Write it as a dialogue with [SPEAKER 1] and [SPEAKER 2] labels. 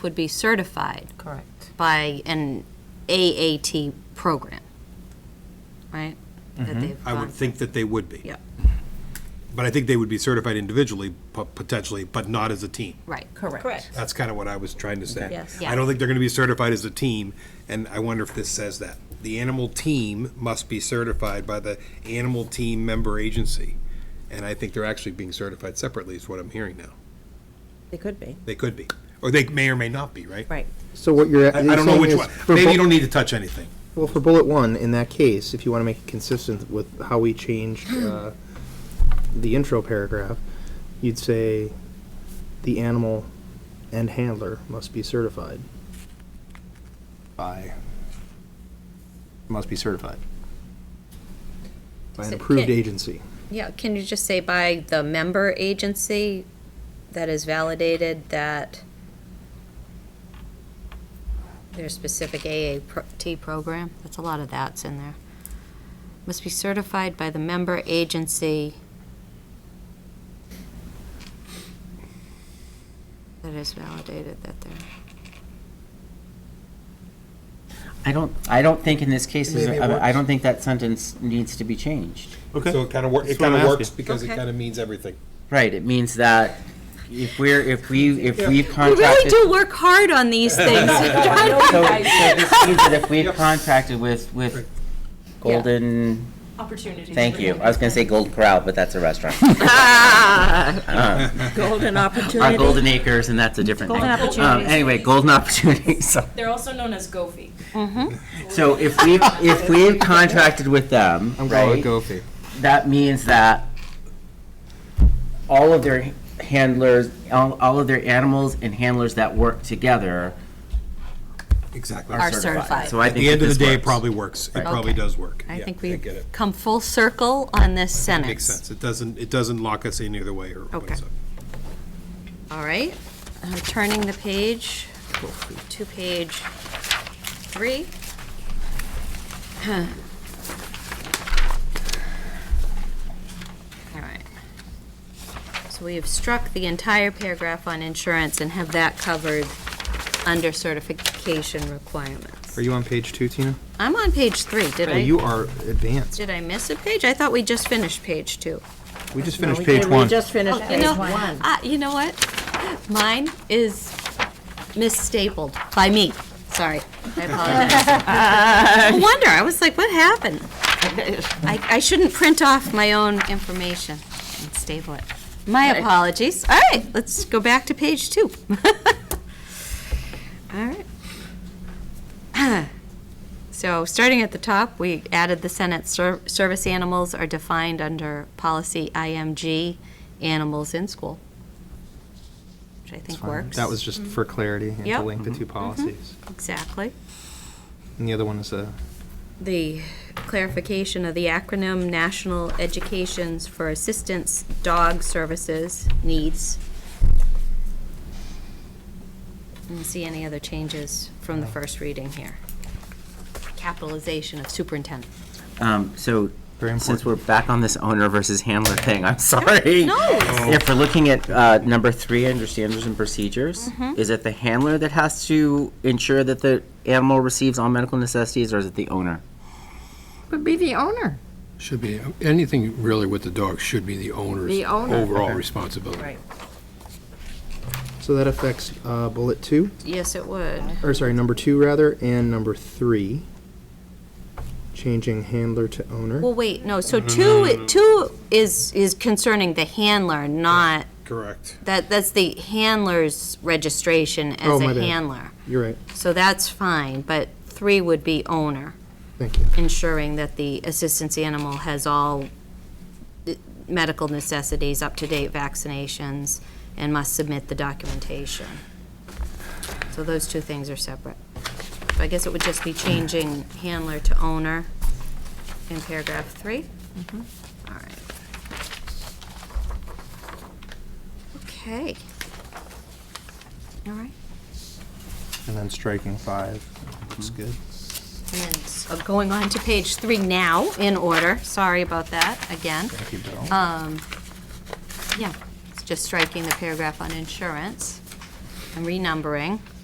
[SPEAKER 1] would be certified
[SPEAKER 2] Correct.
[SPEAKER 1] by an AAT program, right? That they've
[SPEAKER 3] I
[SPEAKER 1] gone
[SPEAKER 3] would think that they would be.
[SPEAKER 1] through. Yeah,
[SPEAKER 3] But I think they would be certified individually, po- potentially, but not as a team.
[SPEAKER 1] right.
[SPEAKER 2] Correct.
[SPEAKER 3] That's kind of what I was trying to say.
[SPEAKER 2] Yes.
[SPEAKER 3] I don't think they're going to be certified as a team, and I wonder if this says that. The animal team must be certified by the animal team member agency. And I think they're actually being certified separately, is what I'm hearing now.
[SPEAKER 2] It could be.
[SPEAKER 3] They could be, or they may or may not be, right?
[SPEAKER 2] Right.
[SPEAKER 4] So what you're.
[SPEAKER 3] I I don't know which one. Maybe you don't need to touch anything.
[SPEAKER 4] Well, for bullet one, in that case, if you want to make it consistent with how we changed uh, the intro paragraph, you'd say the animal and handler must be certified by, must be certified by
[SPEAKER 1] So
[SPEAKER 4] an approved
[SPEAKER 1] can-
[SPEAKER 4] agency.
[SPEAKER 1] Yeah, can you just say by the member agency that is validated that their specific AAT program? That's a lot of that's in there. Must be certified by the member agency that is validated that they're.
[SPEAKER 5] I don't, I don't think in this case, is-
[SPEAKER 4] Maybe it
[SPEAKER 5] I I don't
[SPEAKER 4] works.
[SPEAKER 5] think that sentence needs to be changed.
[SPEAKER 3] So it kind of works, it
[SPEAKER 6] That's what
[SPEAKER 3] kind
[SPEAKER 6] I'm
[SPEAKER 3] of works
[SPEAKER 6] asking.
[SPEAKER 3] because it
[SPEAKER 1] Okay.
[SPEAKER 3] kind of means everything.
[SPEAKER 5] Right, it means that if we're, if we, if we've
[SPEAKER 1] We really
[SPEAKER 5] contracted.
[SPEAKER 1] do work hard on these things.
[SPEAKER 5] So so this means that if we've contracted with, with Golden,
[SPEAKER 7] opportunities.
[SPEAKER 5] thank you, I was gonna say Gold Corral, but that's a restaurant.
[SPEAKER 2] Golden
[SPEAKER 5] Our
[SPEAKER 2] opportunity.
[SPEAKER 5] Golden Acres, and that's a different thing.
[SPEAKER 2] Golden
[SPEAKER 5] Um,
[SPEAKER 2] Opportunities.
[SPEAKER 5] Anyway, Golden Opportunities, so.
[SPEAKER 7] They're also known as GOFI.
[SPEAKER 5] So if we, if we've contracted with them, right?
[SPEAKER 4] Gofi.
[SPEAKER 5] that means that all of their handlers, all, all of their animals and handlers that work together
[SPEAKER 3] Exactly.
[SPEAKER 1] Are certified.
[SPEAKER 5] So I
[SPEAKER 3] At
[SPEAKER 5] think
[SPEAKER 3] the end
[SPEAKER 5] that
[SPEAKER 3] of the
[SPEAKER 5] this
[SPEAKER 3] day, it
[SPEAKER 5] works.
[SPEAKER 3] probably works. It probably
[SPEAKER 1] Okay.
[SPEAKER 3] does work.
[SPEAKER 1] I
[SPEAKER 3] Yeah,
[SPEAKER 1] think
[SPEAKER 3] I get
[SPEAKER 1] we've
[SPEAKER 3] it.
[SPEAKER 1] come full circle on this sentence.
[SPEAKER 3] Makes sense. It doesn't, it doesn't lock us in either way or
[SPEAKER 1] Okay.
[SPEAKER 3] what's up.
[SPEAKER 1] All right, I'm turning the page to page three. All right. So we have struck the entire paragraph on insurance and have that covered under certification requirements.
[SPEAKER 4] Are you on page two, Tina?
[SPEAKER 1] I'm on page three, did
[SPEAKER 4] Oh, You
[SPEAKER 1] I,
[SPEAKER 4] are advanced.
[SPEAKER 1] did I miss a page? I thought we just finished page two.
[SPEAKER 4] We just finished page one.
[SPEAKER 2] just finished
[SPEAKER 1] You know, uh, you know what? Mine is misstapled by me. Sorry. I apologize. No wonder. I was like, what happened? I, I shouldn't print off my own information and staple it. My apologies. All right, let's go back to page two. All right. So, starting at the top, we added the sentence, "Ser- service animals are defined under policy IMG, animals in school, which I think works. Mm-hmm.
[SPEAKER 4] That was just for clarity and to
[SPEAKER 1] Yep.
[SPEAKER 4] link the two policies.
[SPEAKER 1] Exactly.
[SPEAKER 4] And the other one is a
[SPEAKER 1] The clarification of the acronym National Educations for Assistance Dog Services Needs. Didn't see any other changes from the first reading here. Capitalization of superintendent.
[SPEAKER 5] Um, so,
[SPEAKER 4] Very
[SPEAKER 5] since
[SPEAKER 4] important.
[SPEAKER 5] we're back on this owner versus handler thing, I'm sorry.
[SPEAKER 1] No, it's-
[SPEAKER 5] If we're looking at, uh, number three under standards and procedures,
[SPEAKER 1] Mm-hmm.
[SPEAKER 5] is it the handler that has to ensure that the animal receives all medical necessities, or is it the owner?
[SPEAKER 8] Would be the owner.
[SPEAKER 9] Should be, anything really with the dog should be the owner's
[SPEAKER 8] The owner.
[SPEAKER 9] overall responsibility.
[SPEAKER 2] Right.
[SPEAKER 4] So that affects uh, bullet two,
[SPEAKER 1] Yes, it would.
[SPEAKER 4] or sorry, number two rather, and number three, changing handler to owner.
[SPEAKER 1] Well, wait, no,
[SPEAKER 4] Mm-hmm.
[SPEAKER 1] so two, two is, is concerning the handler, not,
[SPEAKER 3] Correct.
[SPEAKER 1] that, that's the handler's registration
[SPEAKER 4] Oh,
[SPEAKER 1] as
[SPEAKER 4] my
[SPEAKER 1] a
[SPEAKER 4] bad.
[SPEAKER 1] handler.
[SPEAKER 4] You're right.
[SPEAKER 1] So that's fine, but three would be owner,
[SPEAKER 4] Thank you.
[SPEAKER 1] ensuring that the assistance animal has all the medical necessities, up-to-date vaccinations, and must submit the documentation. So those two things are separate. So I guess it would just be changing handler to owner in paragraph three? All right. Okay. All right.
[SPEAKER 4] And then striking five. Looks good.
[SPEAKER 1] And then s- uh, going on to page three now, in order, sorry about that, again.
[SPEAKER 4] Thank you, Bill.
[SPEAKER 1] Yeah, it's just striking the paragraph on insurance and renumbering.